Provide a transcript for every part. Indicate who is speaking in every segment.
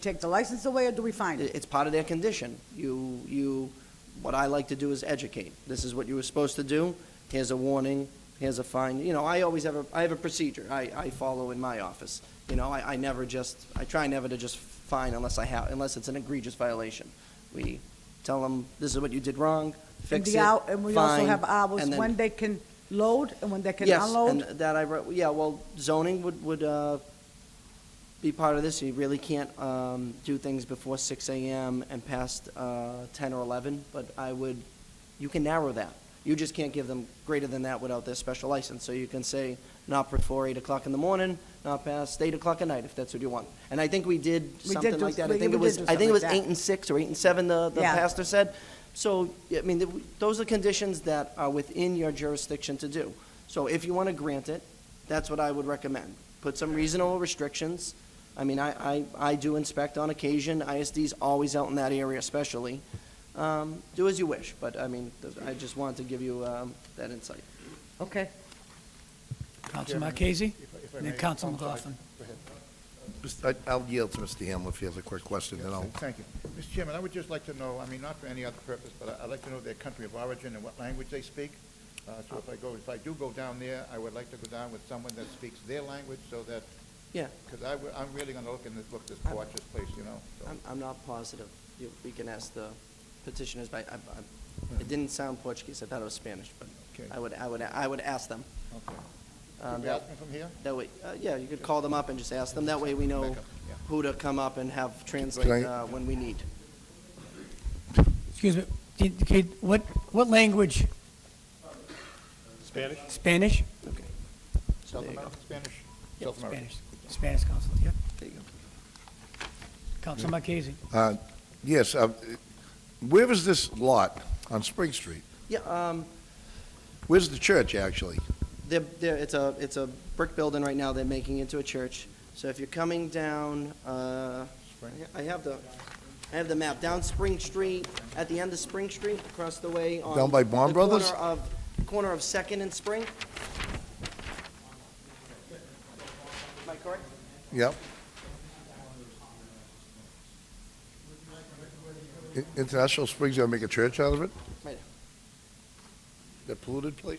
Speaker 1: take the license away, or do we fine
Speaker 2: It-
Speaker 1: it?
Speaker 2: It's part of their condition. You, you, what I like to do is educate. This is what you were supposed to do. Here's a warning, here's a fine. You know, I always have a, I have a procedure I, I follow in my office. You know, I, I never just, I try never to just fine unless I have, unless it's an egregious violation. We tell them, this is what you did wrong,
Speaker 1: And
Speaker 2: fix it,
Speaker 1: the hour- And we also
Speaker 2: fine,
Speaker 1: have hours
Speaker 2: and then-
Speaker 1: when they can load and when they can
Speaker 2: Yes,
Speaker 1: unload.
Speaker 2: and that I wrote, yeah, well, zoning would, would, uh, be part of this, you really can't, um, do things before six AM and past, uh, ten or eleven, but I would, you can narrow that. You just can't give them greater than that without their special license, so you can say not before eight o'clock in the morning, not past eight o'clock at night, if that's what you want. And I think we did
Speaker 1: did
Speaker 2: something
Speaker 1: do-
Speaker 2: like that,
Speaker 1: we-
Speaker 2: I think
Speaker 1: we did
Speaker 2: it was,
Speaker 1: do
Speaker 2: I think
Speaker 1: something
Speaker 2: it was
Speaker 1: like that.
Speaker 2: eight and six or eight and seven, the, the
Speaker 1: Yeah.
Speaker 2: pastor said. So, I mean, th- those are conditions that are within your jurisdiction to do. So if you want to grant it, that's what I would recommend. Put some reasonable restrictions. I mean, I, I, I do inspect on occasion. ISD's always out in that area especially. Um, do as you wish, but I mean, th- I just wanted to give you, um, that insight. uh,
Speaker 1: Okay.
Speaker 3: Councilman Marquez,
Speaker 4: if I
Speaker 3: and then
Speaker 4: may,
Speaker 3: Councilman
Speaker 4: um,
Speaker 3: McLaughlin.
Speaker 5: Mr. I- I'll yield to Mr. Hamlin if he has a quick question, then I'll,
Speaker 4: Thank you. Mr. Chairman, I would just like to know, I mean, not for any other purpose, but I- I'd like to know their country of origin and what language they speak. Uh, So if I go, if I do go down there, I would like to go down with someone that speaks their language so that,
Speaker 2: Yeah,
Speaker 4: because I, would- I'm really going to look in this, look this, watch this place, you know. so.
Speaker 2: I'm, I'm not positive. You, we can ask the petitioners, but I, I, it didn't sound Portuguese. I thought it was Spanish, but
Speaker 4: Okay.
Speaker 2: I would, I would, I would ask them.
Speaker 4: Okay.
Speaker 2: Um,
Speaker 4: Could we
Speaker 2: that-
Speaker 4: ask them from here?
Speaker 2: That way, uh, yeah, you could call them up and just ask them. That way we know
Speaker 4: Back up, yeah.
Speaker 2: who to come up and have translate
Speaker 5: Can
Speaker 2: uh,
Speaker 5: I-
Speaker 2: when we need.
Speaker 3: Excuse me, did- could- what, what language?
Speaker 4: Spanish?
Speaker 3: Spanish?
Speaker 2: Okay. So there
Speaker 4: South
Speaker 2: you go.
Speaker 4: American Spanish? South American.
Speaker 3: Spanish, Spanish, Council, yeah.
Speaker 2: There you go.
Speaker 3: Councilman Marquez.
Speaker 5: uh, yes, uh, where is this lot on Spring Street?
Speaker 2: Yeah, um,
Speaker 5: Where's the church, actually?
Speaker 2: they're, they're, it's a, it's a brick building right now. They're making into a church. So if you're coming down, uh,
Speaker 4: Spring.
Speaker 2: I have the, I have the map. Down Spring Street, at the end of Spring Street, across the way on.
Speaker 5: Down by Baum
Speaker 2: the
Speaker 5: Brothers?
Speaker 2: Corner of, corner of Second and Spring. Am I correct?
Speaker 5: Yep. I- International Springs, gonna make a church out of it?
Speaker 2: Right.
Speaker 5: That polluted place?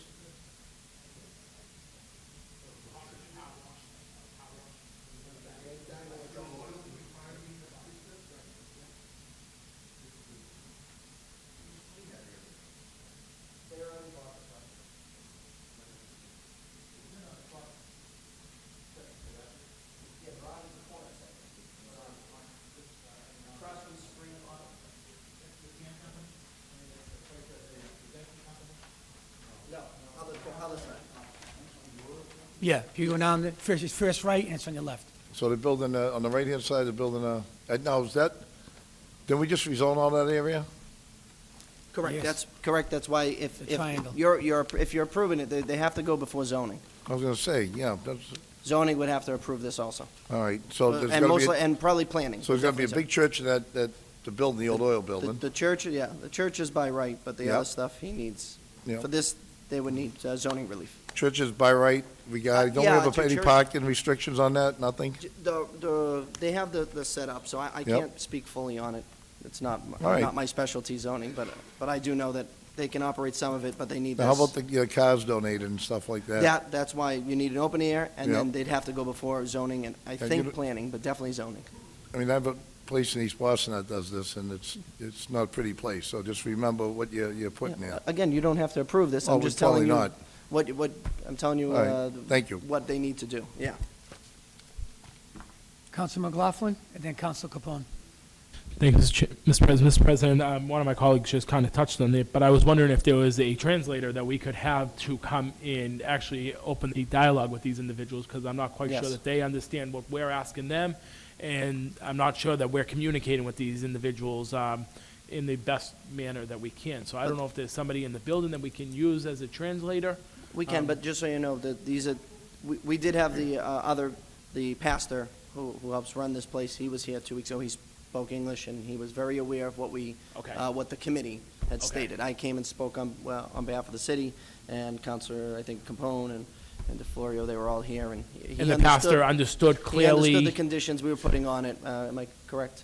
Speaker 3: Yeah, if you go down, the first, it's first right, and it's on your left.
Speaker 5: So they're building, uh, on the right-hand side, they're building a, and now is that, did we just rezone all that area?
Speaker 2: Correct,
Speaker 3: Yes.
Speaker 2: that's, correct, that's why if,
Speaker 3: The
Speaker 2: if
Speaker 3: triangle.
Speaker 2: you're, you're, if you're approving it, they, they have to go before zoning.
Speaker 5: I was gonna say, yeah, that's,
Speaker 2: Zoning would have to approve this also.
Speaker 5: all right, so there's
Speaker 2: Uh, And
Speaker 5: gonna be,
Speaker 2: mostly,
Speaker 5: a-
Speaker 2: and probably planning.
Speaker 5: so there's gonna be a
Speaker 2: definitely
Speaker 5: big church in that, that, the building, the old oil
Speaker 2: so. The-
Speaker 5: building?
Speaker 2: The church, yeah, the church is by right, but the
Speaker 5: Yep.
Speaker 2: other stuff he needs.
Speaker 5: Yep.
Speaker 2: For this, they would need uh, zoning relief.
Speaker 5: Churches by right, we got, don't we
Speaker 2: Yeah,
Speaker 5: have
Speaker 2: to
Speaker 5: any
Speaker 2: church-
Speaker 5: parking restrictions on that, nothing?
Speaker 2: J- The, the, they have the, the setup, so I, I can't speak fully on it. It's not, m-
Speaker 5: All right.
Speaker 2: not my specialty zoning, but, but I do know that they can operate some of it, but they need
Speaker 5: Now,
Speaker 2: this.
Speaker 5: How about the, your cars donated and stuff like that?
Speaker 2: That, that's why you need an open air, and then
Speaker 5: Yep.
Speaker 2: they'd have to go before zoning, and I
Speaker 5: you
Speaker 2: think
Speaker 5: don't-
Speaker 2: planning, but definitely zoning.
Speaker 5: I mean, I have a place in East Boston that does this, and it's, it's not a pretty place, so just remember what you're, you're putting
Speaker 2: Yeah.
Speaker 5: there.
Speaker 2: Again, you don't have to approve this,
Speaker 5: Oh,
Speaker 2: I'm
Speaker 5: we
Speaker 2: just telling
Speaker 5: probably
Speaker 2: you
Speaker 5: not.
Speaker 2: what, what, I'm telling you,
Speaker 5: All right.
Speaker 2: uh.
Speaker 5: Thank you.
Speaker 2: What they need to do, yeah.
Speaker 3: Councilman McLaughlin, and then Council Capone.
Speaker 6: Thank you, Mr. Ch- Mr. Pres- Mr. President. Um, one of my colleagues just kind of touched on it, but I was wondering if there was a translator that we could have to come in, actually open the dialogue with these individuals, because I'm not quite
Speaker 2: Yes.
Speaker 6: sure that they understand what we're asking them, and I'm not sure that we're communicating with these individuals um, in the best manner that we can. So I don't know if there's somebody in the building that we can use as a translator.
Speaker 2: We can,
Speaker 6: Um,
Speaker 2: but just so you know, that these are, we, we did have the, uh, other, the pastor who, who helps run this place, he was here two weeks ago, he spoke English, and he was very aware of what we,
Speaker 6: Okay.
Speaker 2: uh, what the committee had
Speaker 6: Okay.
Speaker 2: stated. I came and spoke on, well, on behalf of the city, and Counselor, I think, Capone, and, and DeFlorio, they were all here, and he he
Speaker 6: And the
Speaker 2: understood-
Speaker 6: pastor understood
Speaker 2: He
Speaker 6: clearly.
Speaker 2: understood the conditions we were putting on it, uh, am I correct?